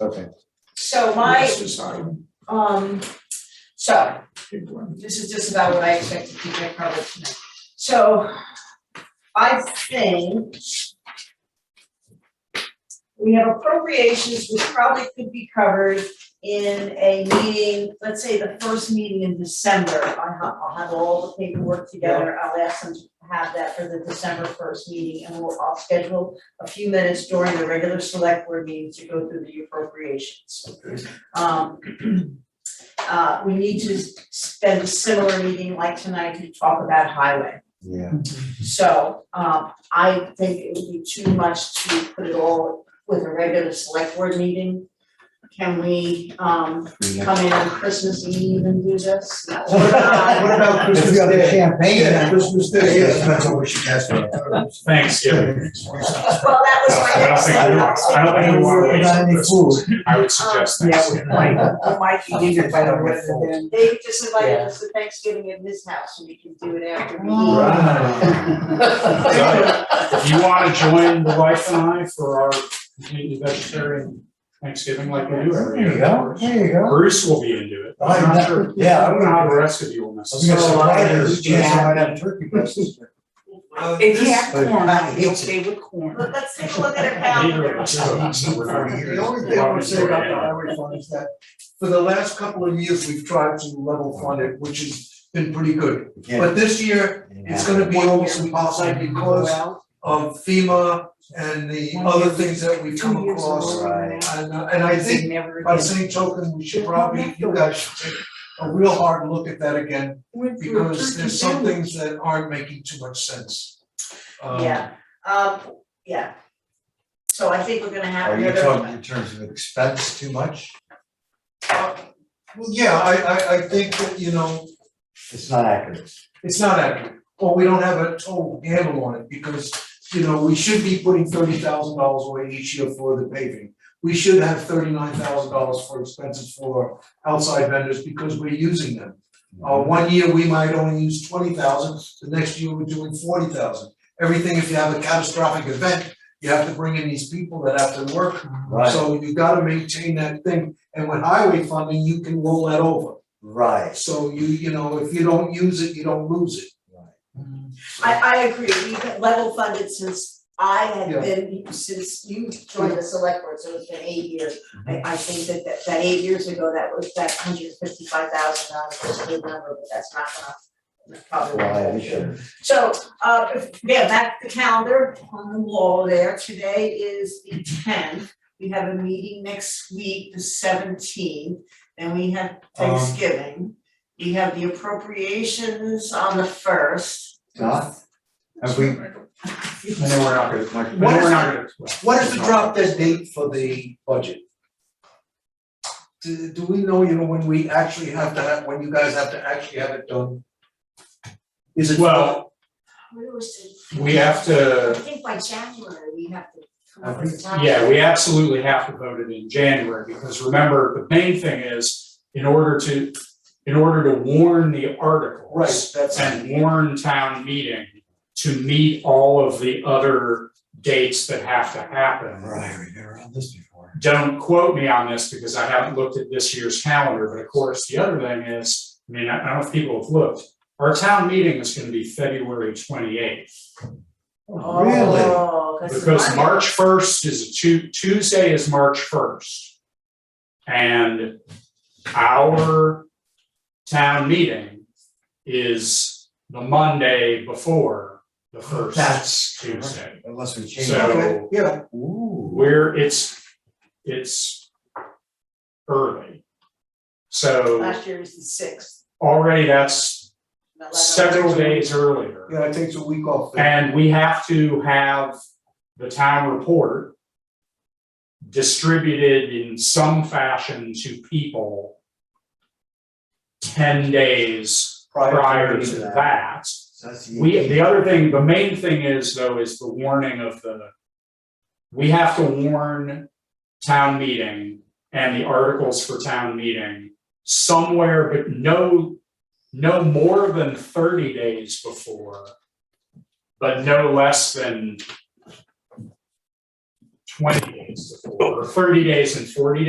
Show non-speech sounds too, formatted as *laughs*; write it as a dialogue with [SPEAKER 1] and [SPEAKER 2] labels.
[SPEAKER 1] Okay.
[SPEAKER 2] So my,
[SPEAKER 3] Let's decide.
[SPEAKER 2] um, so
[SPEAKER 3] Pick one.
[SPEAKER 2] this is just about what I expect to keep my covered tonight. So I think we have appropriations which probably could be covered in a meeting, let's say the first meeting in December. I'll have, I'll have all the paperwork together. I'll ask them to have that for the December first meeting and we'll, I'll schedule a few minutes during the regular select board meeting to go through the appropriations.
[SPEAKER 3] Okay.
[SPEAKER 2] Um, *clears throat* uh, we need to spend a similar meeting like tonight to talk about highway.
[SPEAKER 1] Yeah.
[SPEAKER 2] So, um, I think it would be too much to put it all with a regular select board meeting. Can we, um, come in on Christmas Eve and do this? No, we're not.
[SPEAKER 3] *laughs* What about Christmas
[SPEAKER 1] If you have
[SPEAKER 3] Day?
[SPEAKER 1] champagne,
[SPEAKER 3] Yeah,
[SPEAKER 1] then-
[SPEAKER 3] Christmas Day, yes, that's what we should ask.
[SPEAKER 4] Thanks, yeah.
[SPEAKER 2] Well, that was my
[SPEAKER 4] I don't
[SPEAKER 2] next
[SPEAKER 4] think-
[SPEAKER 2] thing.
[SPEAKER 4] I don't- I don't think we want to waste
[SPEAKER 1] Without any
[SPEAKER 4] this.
[SPEAKER 1] food.
[SPEAKER 4] I would suggest
[SPEAKER 5] Yeah,
[SPEAKER 4] thanks.
[SPEAKER 5] with Mike, with Mike, he did it better with it
[SPEAKER 2] They just invited
[SPEAKER 5] Yeah.
[SPEAKER 2] us to Thanksgiving at his house, and we can do it after we eat.
[SPEAKER 3] Oh.
[SPEAKER 1] Right.
[SPEAKER 5] than.
[SPEAKER 4] If you want to join the wife and I for our completely vegetarian Thanksgiving like we do every
[SPEAKER 1] There you
[SPEAKER 4] year.
[SPEAKER 1] go, there you go.
[SPEAKER 4] Bruce will be into it.
[SPEAKER 3] Oh,
[SPEAKER 4] I'm
[SPEAKER 1] I'm
[SPEAKER 4] not
[SPEAKER 1] not-
[SPEAKER 4] sure.
[SPEAKER 1] yeah,
[SPEAKER 4] I
[SPEAKER 1] I'm
[SPEAKER 4] don't know how the rest of you will necessarily.
[SPEAKER 5] gonna say, why
[SPEAKER 1] There's a chance I
[SPEAKER 3] *laughs*
[SPEAKER 1] might have turkey breast.
[SPEAKER 5] If you have corn,
[SPEAKER 1] Uh, I
[SPEAKER 5] I'd be
[SPEAKER 1] hate
[SPEAKER 5] okay with corn.
[SPEAKER 2] Let- Let's take a look at our
[SPEAKER 4] Neither of
[SPEAKER 2] calendar.
[SPEAKER 4] us are, so we're not-
[SPEAKER 3] The only thing I would say about the highway fund is that for the last couple of years, we've tried to level fund it, which has been pretty good. But this year, it's gonna be almost impossible because
[SPEAKER 5] Well,
[SPEAKER 3] of FEMA and the other things that we've
[SPEAKER 5] two
[SPEAKER 3] come
[SPEAKER 5] years
[SPEAKER 3] across.
[SPEAKER 5] ago,
[SPEAKER 1] right.
[SPEAKER 3] And, uh, and I think
[SPEAKER 5] never
[SPEAKER 3] by the
[SPEAKER 5] again.
[SPEAKER 3] same token, we should probably, you guys should take a real hard look at that again,
[SPEAKER 5] Went through a
[SPEAKER 3] because there's
[SPEAKER 5] turkey
[SPEAKER 3] some
[SPEAKER 5] sandwich.
[SPEAKER 3] things that aren't making too much sense. Um,
[SPEAKER 2] Yeah, um, yeah. So I think we're gonna have
[SPEAKER 1] Are you
[SPEAKER 2] another.
[SPEAKER 1] talking in terms of expense too much?
[SPEAKER 3] Well, yeah, I I I think that, you know,
[SPEAKER 1] It's not accurate.
[SPEAKER 3] it's not accurate, or we don't have a total handle on it, because, you know, we should be putting thirty thousand dollars away each year for the paving. We should have thirty-nine thousand dollars for expenses for outside vendors, because we're using them. Uh, one year, we might only use twenty thousand, the next year, we're doing forty thousand. Everything, if you have a catastrophic event, you have to bring in these people that have to work.
[SPEAKER 1] Right,
[SPEAKER 3] So you gotta maintain that thing, and with highway funding, you can roll that over.
[SPEAKER 1] right,
[SPEAKER 3] So you, you know, if you don't use it, you don't lose it.
[SPEAKER 1] right.
[SPEAKER 2] I, I agree, we've been level funded since I
[SPEAKER 3] Yeah.
[SPEAKER 2] have been, since you joined the select board, so it's been eight years.
[SPEAKER 1] Mm-hmm.
[SPEAKER 2] I, I think that, that, that eight years ago, that was, that hundred fifty-five thousand dollars was a good number, but that's not gonna. Probably. won't
[SPEAKER 1] Why,
[SPEAKER 2] hold
[SPEAKER 1] we
[SPEAKER 2] here.
[SPEAKER 1] should,
[SPEAKER 2] So, uh, if- yeah, back to the calendar on the wall there, today is the tenth, we have a meeting next week, the seventeenth, and we
[SPEAKER 4] Um,
[SPEAKER 2] have Thanksgiving. We have the appropriations on the first.
[SPEAKER 1] Don, have we,
[SPEAKER 4] I know we're not gonna, I know
[SPEAKER 3] What is
[SPEAKER 4] we're not gonna.
[SPEAKER 3] What is the drop dead date for the budget? Do, do we know, you know, when we actually have to have, when you guys have to actually have it done? Is it?
[SPEAKER 4] Well,
[SPEAKER 2] Where was it?
[SPEAKER 4] we have
[SPEAKER 2] I
[SPEAKER 4] to,
[SPEAKER 2] think by January, we have to come
[SPEAKER 3] I
[SPEAKER 2] up with a time.
[SPEAKER 4] yeah, we absolutely have to vote it in January, because remember, the main thing is, in order to, in order to warn the articles.
[SPEAKER 3] Right, that's,
[SPEAKER 4] and warn town meeting to meet all of the other dates that have to happen.
[SPEAKER 1] right, we've never had this before.
[SPEAKER 4] Don't quote me on this because I haven't looked at this year's calendar, but of course, the other thing is, I mean, I I don't know if people have looked. Our town meeting is gonna be February twenty eighth,
[SPEAKER 1] Oh, Really?
[SPEAKER 2] Oh, cause.
[SPEAKER 4] because March first is a Tu- Tuesday is March first. And our town meeting is the Monday before the first.
[SPEAKER 3] that's,
[SPEAKER 4] Tuesday.
[SPEAKER 1] Unless we change.
[SPEAKER 4] So-
[SPEAKER 1] it.
[SPEAKER 3] okay, yeah,
[SPEAKER 1] Ooh.
[SPEAKER 4] Where it's, it's early. So
[SPEAKER 2] Last year was the sixth.
[SPEAKER 4] already that's
[SPEAKER 2] not like-
[SPEAKER 4] several days earlier.
[SPEAKER 3] yeah, it takes a week off.
[SPEAKER 4] And we have to have the town report distributed in some fashion to people ten days prior to that.
[SPEAKER 1] So that's the
[SPEAKER 4] We,
[SPEAKER 1] eighteenth.
[SPEAKER 4] the other thing, the main thing is though, is the warning of the, we have to warn town meeting and the articles for town meeting somewhere, but no, no more than thirty days before, but no less than twenty days to four, or thirty days and forty